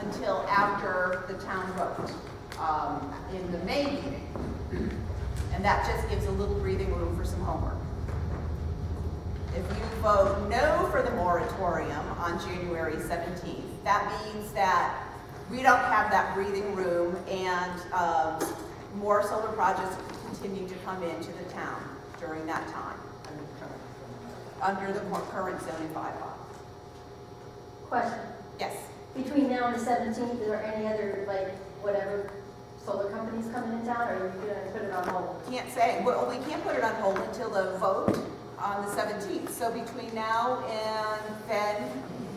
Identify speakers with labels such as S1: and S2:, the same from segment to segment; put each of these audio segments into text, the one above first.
S1: until after the town vote, um, in the May meeting. And that just gives a little breathing room for some homework. If you vote no for the moratorium on January 17th, that means that we don't have that breathing room and um, more solar projects continue to come into the town during that time, under the cur- current zoning bylaw.
S2: Question,
S1: Yes,
S2: between now and the seventeenth, is there any other, like, whatever solar companies coming in town, or are you gonna put it on hold?
S1: can't say, well, we can't put it on hold until the vote on the 17th. So between now and then,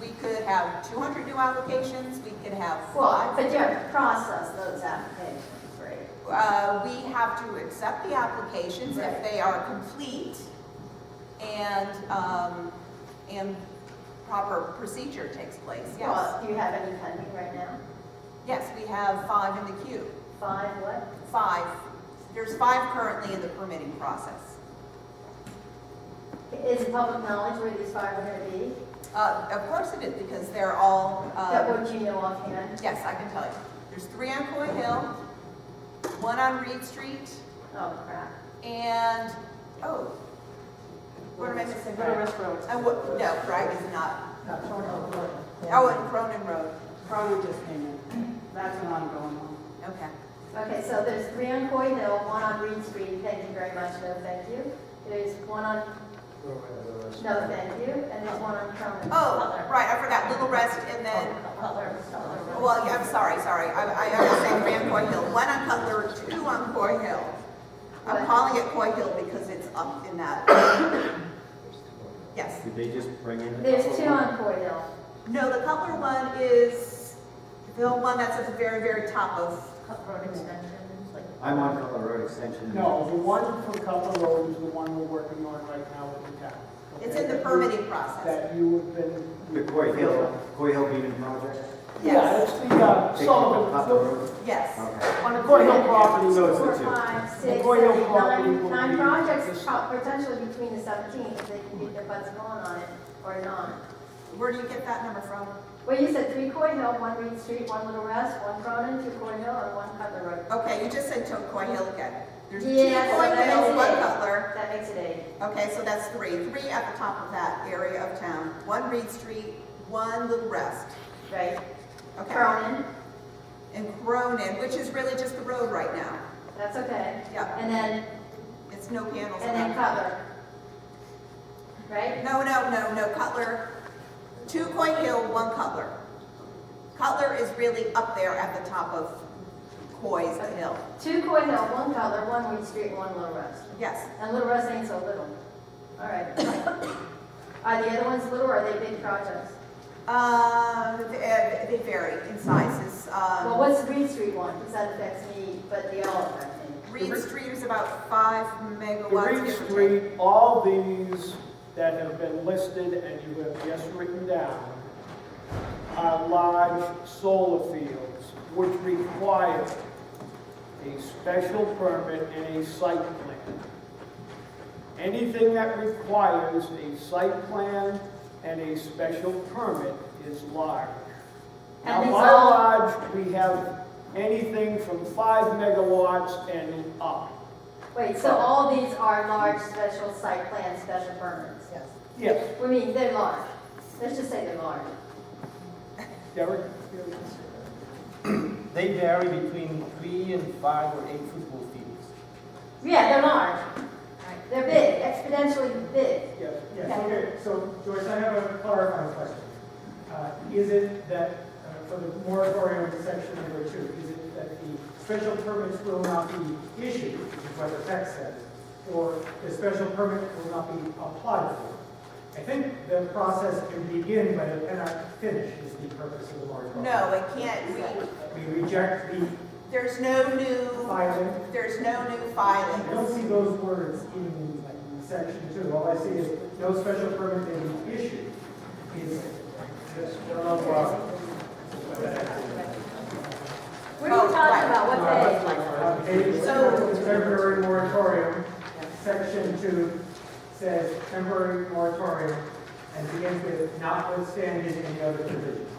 S1: we could have 200 new applications, we could have
S2: Well,
S1: five.
S2: but you have to process those applications, right?
S1: Uh, we have to accept the applications if they are complete and, um, and proper procedure takes place, yes.
S2: Well, Do you have any pending right now?
S1: Yes, we have five in the queue,
S2: Five, what?
S1: five. There's five currently in the permitting process.
S2: Is it public knowledge where these five are gonna be?
S1: Uh, of course it is, because they're all,
S2: That
S1: uh,
S2: what you know offhand?
S1: yes, I can tell you. There's three on Coy Hill, one on Reed Street,
S2: Oh, crap.
S1: and, oh, what am I missing?
S3: Little Rest Road.
S1: Uh, what, no, Bragg is not
S3: No, Cronin Road.
S1: Oh, and Cronin Road,
S3: Cronin just came in. That's an ongoing one.
S1: okay.
S2: Okay, so there's three on Coy Hill, one on Reed Street, thank you very much, no thank you. There's one on, no thank you, and there's one on Cronin.
S1: Oh, right, I forgot, Little Rest and then,
S2: Cutler, Cutler Road.
S1: well, yeah, I'm sorry, sorry, I, I I was saying Grand Coy Hill, one on Cutler, two on Coy Hill. I'm
S2: What?
S1: calling it Coy Hill because it's up in that, yes.
S4: Did they just bring in?
S2: There's two on Coy Hill.
S1: No, the Cutler one is the one that's at the very, very top of,
S2: Road extension, like.
S4: I'm on Cutler Road Extension.
S5: No, the one from Cutler Road is the one we're working on right now with the town.
S1: it's in the permitting process.
S5: That you have been.
S4: The Coy Hill, Coy Hill Beaman Project?
S5: Yeah,
S1: Yes,
S5: it's the, uh,
S4: They call it Cutler
S5: Sullivan,
S4: Road?
S1: yes.
S4: Okay.
S5: on the Coy Hill property,
S4: So it's the
S5: though.
S2: Four,
S4: two.
S2: five, six,
S5: Coy Hill
S2: seven,
S5: property will
S2: nine, nine
S5: be-
S2: projects po- potentially between the seventeenth, if they can get their butts going on it or not.
S1: Where do you get that number from?
S2: Well, you said three Coy Hill, one Reed Street, one Little Rest, one Cronin, two Coy Hill, and one Cutler Road.
S1: Okay, you just said Tote Coy Hill again. There's two
S2: Yeah, so
S1: Coy
S2: that
S1: Hills,
S2: makes
S1: one
S2: it eight.
S1: Cutler.
S2: That makes it eight.
S1: Okay, so that's three, three at the top of that area of town, one Reed Street, one Little Rest.
S2: Right.
S1: Okay,
S2: Cronin,
S1: and Cronin, which is really just the road right now.
S2: that's okay.
S1: Yeah,
S2: And then,
S1: it's no panels.
S2: and then Cutler. Right?
S1: No, no, no, no, Cutler, two Coy Hill, one Cutler. Cutler is really up there at the top of Coy's Hill.
S2: Two Coy Hill, one Cutler, one Reed Street, one Little Rest.
S1: Yes,
S2: And Little Rest ain't so little. All right. Are the other ones little or are they big projects?
S1: um, they they vary in sizes. Um,
S2: Well, what's Reed Street one? Because that affects me, but they all affect me.
S1: Reed Street is about five
S5: The
S1: megawatts.
S5: Green
S1: give or take.
S5: Street, all these that have been listed and you have just written down are large solar fields which require a special permit and a site plan. Anything that requires a site plan and a special permit is large. Now,
S2: And it's
S5: by
S2: all-
S5: large, we have anything from five megawatts and up.
S2: Wait, so all these are large special site plan, special permits? Yes.
S5: Yes,
S2: We mean, they're large. Let's just say they're large.
S5: Derek?
S6: They vary between three and five or eight football fields.
S2: Yeah, they're large. They're big, exponentially big.
S5: Yes.
S7: Yes, okay, so Joyce, I have a clarifying question. Uh, Is it that, uh, for the moratorium in section number two, is it that the special permits will not be issued, which is what the text says, or the special permit will not be applied for? I think the process can begin, but it cannot finish, is the purpose of the moratorium.
S1: No, it can't, we,
S7: We reject the
S1: there's no new,
S7: filing,
S1: there's no new
S7: I don't
S1: filings.
S7: see those words in like, in section two. All I see is no special permit may be issued. Is, I don't know why.
S2: What are you
S1: Oh, right.
S2: talking about? What page?
S7: Uh, page-
S1: So-
S7: Temporary moratorium, section two says temporary moratorium and begins with notwithstanding any other provisions.